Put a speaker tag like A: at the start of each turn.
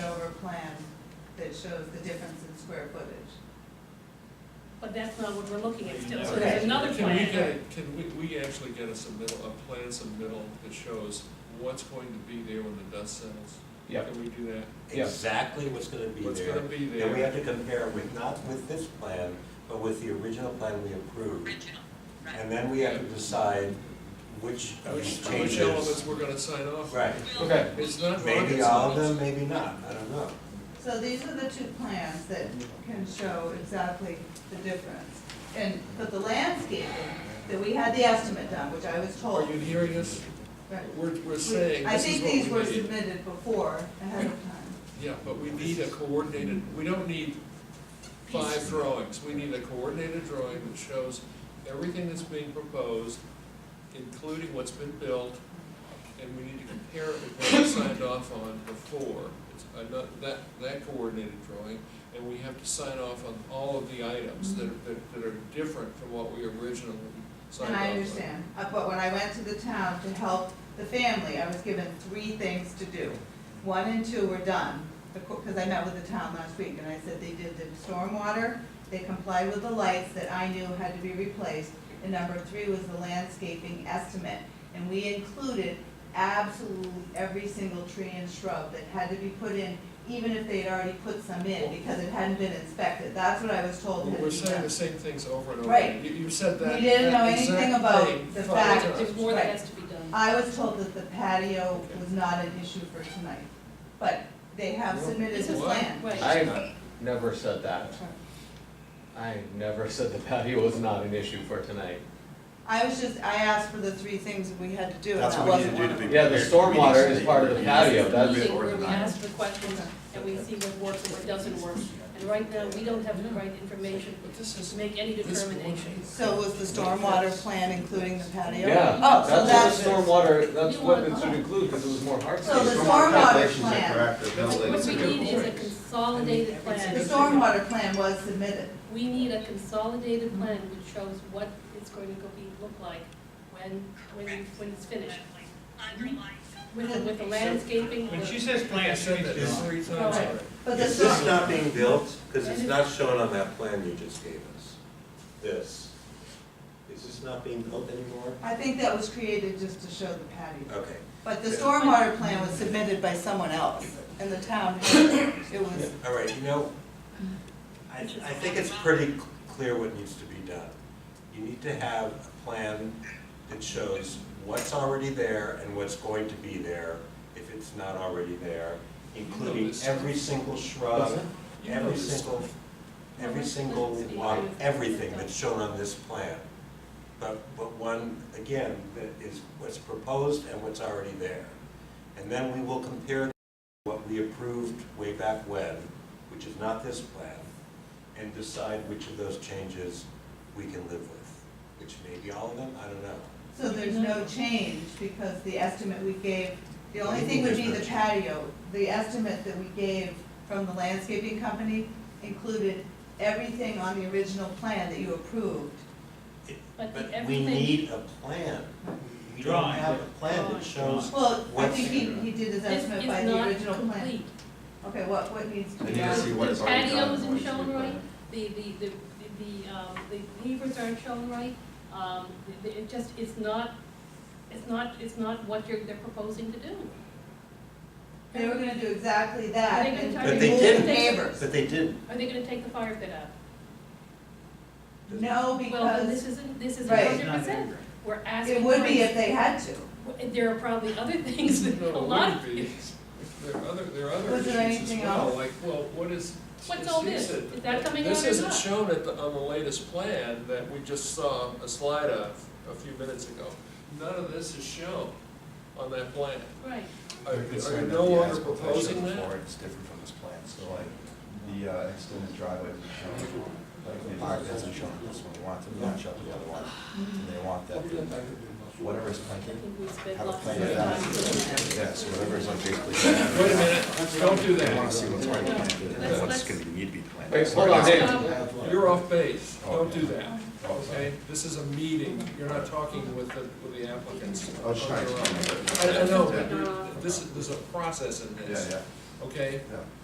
A: plan that shows the difference in square footage.
B: But that's not what we're looking at still, so
A: Okay.
B: there's another
C: Can we
B: plan here.
C: get- Can we, we actually get a submittal, a plan submittal that shows what's going to be there when the dust settles?
D: Yep.
C: Can we do that?
D: Yeah.
E: exactly what's gonna be
C: What's
E: there.
C: gonna be there?
E: And we have to compare it with, not with this plan, but with the original plan we approved.
F: original, right.
E: And then we have to decide which of
C: Which,
E: these
C: which elements
E: changes.
C: we're gonna sign off? on.
E: Right,
F: We'll-
D: Okay,
C: It's not
E: maybe
C: rocket
E: all of
C: science.
E: them, maybe not, I don't know.
A: So these are the two plans that can show exactly the difference. And, but the landscaping, that we had the estimate done, which I was
C: Are
A: told.
C: you hearing us?
A: Right.
C: We're, we're saying
A: I
C: this
A: think
C: is
A: these
C: what
A: were
C: we need.
A: submitted before, ahead of time.
C: Yeah, but we need a coordinated, we don't need five drawings. We need a coordinated drawing that shows everything that's being proposed, including what's been built, and we need to compare it with what we signed off on before. It's ano- That, that coordinated drawing, and we have to sign off on all of the items that are, that- that are different from what we originally signed
A: And
C: off on.
A: I understand, Uh, but when I went to the town to help the family, I was given three things to do. One and two were done, because I met with the town last week, and I said they did the stormwater, they complied with the lights that I knew had to be replaced, and number three was the landscaping estimate. And we included absolutely every single tree and shrub that had to be put in, even if they'd already put some in, because it hadn't been inspected, that's what I was told had to be
C: We're saying
A: done.
C: the same things over and over.
A: Right.
C: You, you said that.
A: We didn't
C: that
A: know anything
C: exact
A: about
C: thing
A: the
C: five
A: fact
C: times.
B: There's more that has to be done.
A: I was told that the patio was not an issue for tonight, but they have submitted the
C: What?
A: plan.
B: Right.
D: I never said that. I never said the patio was not an issue for tonight.
A: I was just, I asked for the three things that we had to do, and
G: That's
A: that
G: what we
A: wasn't
G: need to do
A: one
G: to
A: of
G: be.
A: them.
D: Yeah, the
G: prepared.
D: stormwater
G: We need to
D: is
G: be
D: part of the
G: ready.
D: patio, that's-
B: meeting where we
G: Organized.
B: ask the questions and we see what works and what doesn't work. And right now, we don't have the right information
C: But this is.
B: to make any
C: This one.
B: determination.
A: So was the stormwater plan including the patio?
D: Yeah,
A: Oh, so
D: that's
A: that's,
D: what the stormwater, that's
B: You
D: what
B: want-
D: it should include, because it was more hard.
A: So the
G: Stormwater
A: stormwater
G: calculations are
A: plan.
G: correct, there's no
B: What
G: latent
B: we need is a
G: difference.
B: consolidated
A: the
B: plan.
A: stormwater plan was submitted.
B: We need a consolidated plan which shows what it's going to go be, look like when, when, when it's finished.
F: Underlying.
B: With, the- with the landscaping,
H: When she
B: the-
H: says plan,
C: I
H: she
C: said
H: means
C: that
H: this.
C: three times
B: Right.
C: already.
A: But the
E: Is this
A: storm,
E: not being built? Because it's not shown on that plan you just gave us. This. Is this not being built anymore?
A: I think that was created just to show the patio.
E: Okay.
A: But the stormwater plan was submitted by someone else, and the town, it was,
E: All right, you know, I, I think it's pretty cl- clear what needs to be done. You need to have a plan that shows what's already there and what's going to be there, if it's not already there, including every single shrub,
C: You know
E: every
C: this.
E: single, every single, lot, everything that's shown on this plan. But, but one, again, that is what's proposed and what's already there. And then we will compare what we approved way back when, which is not this plan, and decide which of those changes we can live with, which may be all of them, I don't know.
A: so there's no change because the estimate we gave, the only thing would be the
E: There's no
A: patio. The estimate that we gave from the landscaping company included everything on the original plan that you approved.
E: It-
B: But the
E: we
B: everything-
E: need a plan. We don't
H: Drawing.
E: have a plan that shows,
A: Well, I
E: What's-
A: think he, he did his
B: this
A: estimate by
B: is
A: the
B: not
A: original plan.
B: complete.
A: Okay, what, what needs to
G: I
A: be
G: need to see
A: done?
G: what
B: The
G: is already done.
B: patio
G: and what
B: isn't
G: is to be
B: shown
G: done.
B: right, the, the, the, the, um, the pavers aren't shown right. Um, the- the- it just, it's not, it's not, it's not what you're, they're proposing to do.
A: They were gonna do exactly that
B: Are they gonna
A: and
B: try
E: to
A: remove
E: But they
A: the
B: didn't.
A: neighbors.
E: but they didn't.
B: Are they gonna take the fire pit out?
A: No,
B: Well, then this
A: because
B: isn't, this is
A: Right.
B: hundred percent. We're asking.
A: it would
B: for-
A: be if they had to.
B: There are probably other things, that-
C: No, it
B: a lot of
C: wouldn't be.
B: things.
C: There are other, there are other
A: Was
C: issues
A: there
C: as
A: anything
C: well,
A: else?
C: like, well, what is?
B: What's
C: as
B: all
C: he
B: this?
C: said,
B: Is that coming out
C: This
B: or
C: isn't
B: not?
C: shown at the, on the latest plan that we just saw a slide of a few minutes ago. None of this is shown on that plan.
B: Right.
C: Are
G: They're
C: are you
G: concerned
C: no
G: that the
C: longer
G: asphalt
C: proposing
G: shown
C: that?
G: before, It's different from this plan, so like, the uh, extended driveway is shown, like, the park isn't shown on this one, they want to match up the other one. And They want that, whatever is
B: I
G: planted,
B: think we spent
G: have a
B: lots of
G: plan
B: time.
G: of
B: doing
G: that.
B: that.
G: Yes, whatever is on basically.
C: Wait a minute, don't do
G: They wanna
C: that.
G: see what's already planted
B: Let's-
G: and
B: let's-
G: what's gonna need to be planted.
D: Wait, hold on, Dave.
B: Um,
C: You're off base. Don't do that,
G: Oh, sorry.
C: okay? This is a meeting. You're not talking with the, with the applicants.
G: I was trying
C: On
G: to
C: your own.
G: explain it.
C: I I know,
G: Yeah.
C: but this is, there's a process in
G: Yeah,
C: this,
G: yeah,
C: okay?
G: yeah.